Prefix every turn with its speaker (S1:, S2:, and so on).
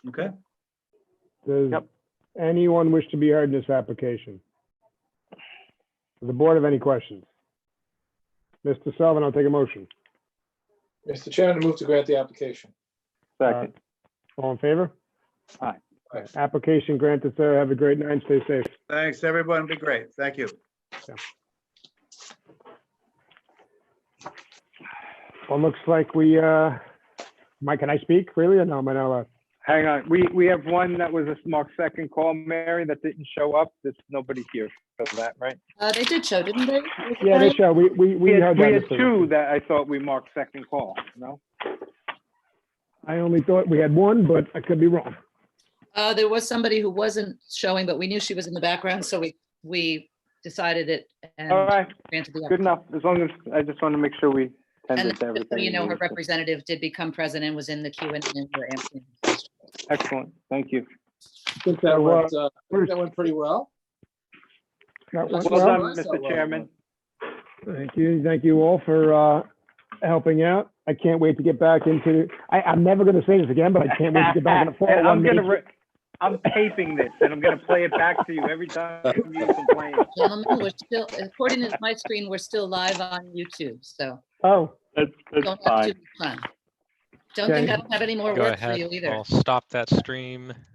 S1: Okay,
S2: Does
S3: Yep.
S2: anyone wish to be heard in this application? Does the board have any questions? Mr. Sullivan, I'll take a motion.
S4: Mr. Chairman, I move to grant the application.
S5: Uh,
S3: Second,
S2: All in favor?
S3: Aye.
S4: Aye.
S2: Application granted, sir. Have a great night. and Stay safe.
S1: thanks, everyone. Be great. Thank you.
S2: Well, looks like we, uh, Mike, can I speak really or no, am I not allowed?
S5: Hang on, we, we have one that was a small second call, Mary, that didn't show up. There's nobody here for that, right?
S6: Uh, they did show, didn't they?
S2: Yeah, they show, we, we, we
S5: had-
S2: heard
S5: We had
S2: that. Mr.
S5: two that I thought we marked second call, no?
S2: I only thought we had one, but I could be wrong.
S6: Uh, there was somebody who wasn't showing, but we knew she was in the background, so we, we decided it and
S5: All right,
S6: granted the,
S5: good enough. As long as, I just want to make sure we
S6: and
S5: attended to
S6: just so
S5: everything.
S6: you know, her
S5: we needed
S6: representative did become president, and was in the queue and and we're answering.
S5: to. Excellent, thank you.
S4: I think that
S2: So, uh,
S4: went, uh, I think that went pretty well.
S2: That
S4: Well
S2: went
S5: Well
S2: well.
S5: done, Mr. Chairman.
S2: Thank you. Thank you all for, uh, helping out. I can't wait to get back into, I, I'm never going to say this again, but I can't wait to get back in the fall.
S5: And I'm
S2: one
S5: gonna,
S2: day.
S5: re- I'm taping this and I'm gonna play it back to you every time you complain.
S6: Gentlemen, we're still, according to my screen, we're still live on YouTube, so
S2: Oh,
S3: that's,
S6: don't
S3: that's
S6: have
S3: fine.
S6: too much fun. Don't think
S2: Okay.
S6: I have any more
S7: Go
S6: work for you
S7: ahead.
S6: either.
S7: I'll stop that stream.